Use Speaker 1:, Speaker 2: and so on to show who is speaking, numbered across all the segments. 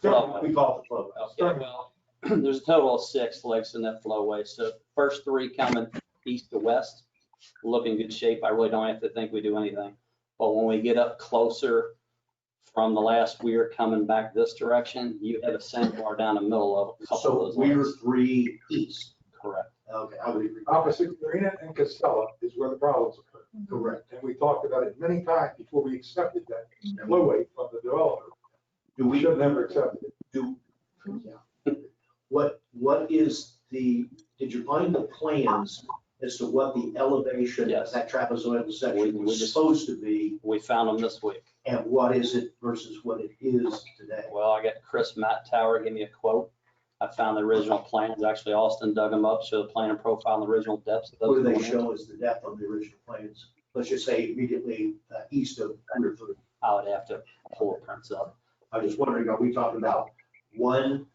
Speaker 1: Flowway.
Speaker 2: We call it the flowway.
Speaker 1: Okay, well, there's a total of six lakes in that flowway, so first three coming east to west, look in good shape, I really don't have to think we do anything. But when we get up closer from the last weir coming back this direction, you have a sandbar down the middle of a couple
Speaker 2: So
Speaker 1: of those
Speaker 2: we're
Speaker 1: lakes.
Speaker 2: three east.
Speaker 1: Correct.
Speaker 2: Okay, I would agree.
Speaker 3: Opposite Marina and Casella is where the problems occur.
Speaker 2: Correct.
Speaker 3: And we talked about it many times before we accepted that flowway from the developer.
Speaker 2: Mm-hmm. Do
Speaker 3: We
Speaker 2: we,
Speaker 3: should have never accepted it.
Speaker 2: do, yeah. what, what is the, did you find the plans as to what the elevation of
Speaker 1: Yes.
Speaker 2: that trapezoidal
Speaker 1: We-
Speaker 2: section
Speaker 1: we
Speaker 2: was
Speaker 1: just-
Speaker 2: supposed to be?
Speaker 1: We found them this week.
Speaker 2: And what is it versus what it is today?
Speaker 1: Well, I got Chris Matt Tower, give me a quote. I found the original plans, actually Austin dug them up, showed the plan and profile and the original depths of those.
Speaker 2: What do they
Speaker 1: plans.
Speaker 2: show as the depth on the original plans? Let's just say immediately uh, east of Hundred Foot.
Speaker 1: I would have to pull the prints up.
Speaker 2: I was just wondering, are we talking about one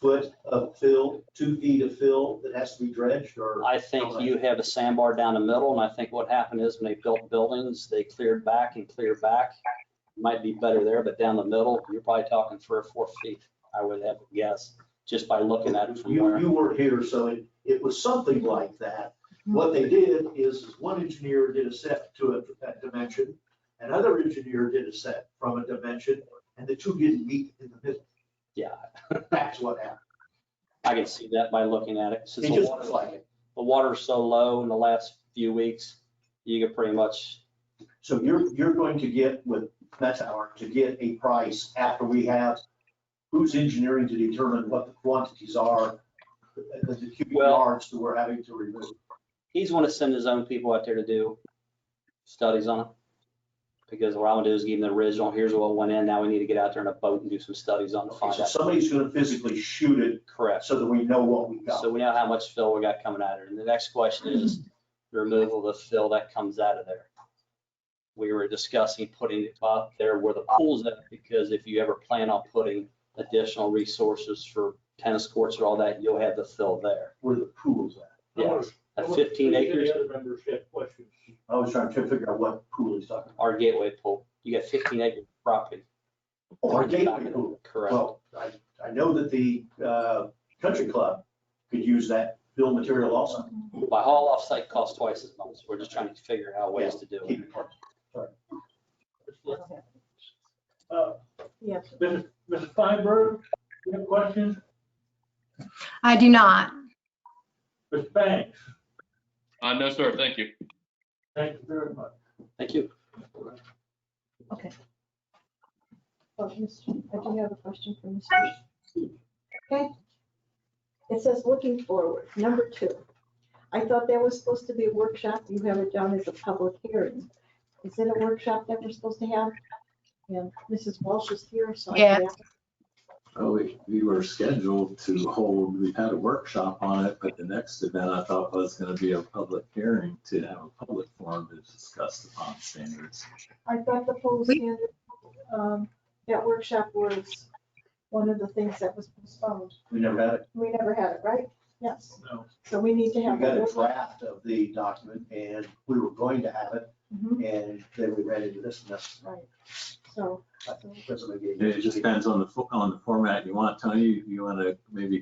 Speaker 2: foot of fill, two feet of fill that has to be dredged or?
Speaker 1: I think you have a sandbar down the middle, and I think what happened is when they built buildings, they cleared back and cleared back. Might be better there, but down the middle, you're probably talking three or four feet, I would have to guess, just by looking at it from
Speaker 2: You,
Speaker 1: where.
Speaker 2: you weren't here, so it, it was something like that. What they did is, is one engineer did a set to a, a dimension, another engineer did a set from a dimension, and the two didn't meet in the middle.
Speaker 1: Yeah,
Speaker 2: That's what happened.
Speaker 1: I can see that by looking at it. Since
Speaker 2: It
Speaker 1: the
Speaker 2: just looks
Speaker 1: water's
Speaker 2: like it.
Speaker 1: the water's so low in the last few weeks, you could pretty much,
Speaker 2: So you're, you're going to get with Metower to get a price after we have who's engineering to determine what the quantities are, the the cubic
Speaker 1: Well-
Speaker 2: yards that we're having to remove.
Speaker 1: he's want to send his own people out there to do studies on it. Because what I'm gonna do is give him the original, here's what went in, now we need to get out there in a boat and do some studies on it,
Speaker 2: Okay,
Speaker 1: find
Speaker 2: So
Speaker 1: out.
Speaker 2: somebody's gonna physically shoot it
Speaker 1: Correct.
Speaker 2: so that we know what we got.
Speaker 1: So we know how much fill we got coming out of it. And the next question is the removal of the fill that comes out of there. We were discussing putting it up there where the pool's at, because if you ever plan on putting additional resources for tennis courts or all that, you'll have the fill there.
Speaker 2: Where the pool's at.
Speaker 1: Yeah, at 15 acres,
Speaker 4: Any other members have questions?
Speaker 2: I was trying to figure out what pool he's talking about.
Speaker 1: our gateway pool, you got 15 acres of property.
Speaker 2: Or a Oh, gateway pool.
Speaker 1: Correct.
Speaker 2: Well, I, I know that the, uh, country club could use that bill material also.
Speaker 1: By haul off site costs twice as much. We're just trying to figure out ways to do it.
Speaker 2: Keep it parked.
Speaker 4: Uh,
Speaker 5: Oh, Yes.
Speaker 4: Mrs. Mrs. Feinberg, you have questions?
Speaker 6: I do not.
Speaker 4: Mr. Banks,
Speaker 7: Uh, no, sir, thank you.
Speaker 4: thank you very much.
Speaker 1: Thank you.
Speaker 5: Oh, Mr. I do have a question for Mr. Okay. It says looking forward, number two. I thought that was supposed to be a workshop. You have it down as a public hearing. Is it a workshop that we're supposed to have? And Mrs. Walsh is here, so. I can ask-
Speaker 8: Well, Oh, we, we were scheduled to hold, we had a workshop on it, but the next event I thought was gonna be a public hearing to have a public forum to discuss the pond standards.
Speaker 5: I thought the full standard, um, that workshop was one of the things that was postponed.
Speaker 2: We never had it.
Speaker 5: We never had it, right? Yes.
Speaker 4: No.
Speaker 5: So we need to
Speaker 2: We
Speaker 5: have.
Speaker 2: got
Speaker 5: that.
Speaker 2: a draft of the document and we were going to have it
Speaker 5: Mhm,
Speaker 2: and then we ran into this mess.
Speaker 5: Right. So,
Speaker 2: That's what I gave you.
Speaker 8: It just depends on the, fo- on the format you want. Tony, you, you wanna maybe,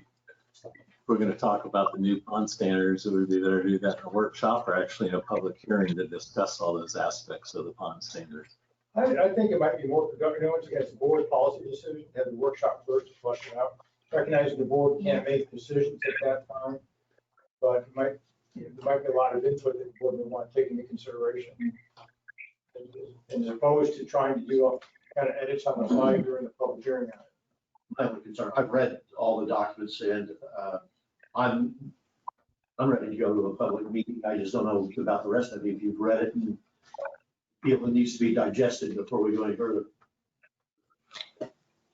Speaker 8: if we're gonna talk about the new pond standards, it would be better to do that in a workshop or actually in a public hearing to discuss all those aspects of the pond standards.
Speaker 3: I, I think it might be more productive, you know, once you get the board policy decision, have the workshop first, to flush it out. Recognizing the board can't make decisions at that time, but it might, there might be a lot of input that the board would want to take into consideration. And as opposed to trying to do, kind of edits on the fly during the public hearing.
Speaker 2: My only concern, I've read all the documents and uh, I'm, I'm ready to go to a public meeting. I just don't know about the rest of you, if you've read it and feel it needs to be digested before we go any further.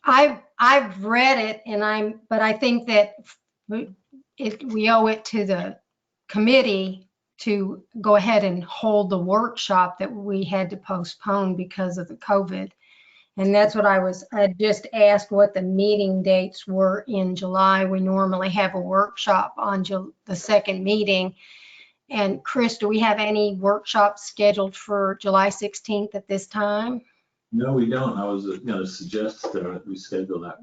Speaker 6: I've, I've read it and I'm, but I think that we- it, we owe it to the committee to go ahead and hold the workshop that we had to postpone because of the COVID. And that's what I was, I just asked what the meeting dates were in July. We normally have a workshop on Ju- the second meeting. And Chris, do we have any workshops scheduled for July 16th at this time?
Speaker 8: No, we don't. I was gonna suggest that we schedule that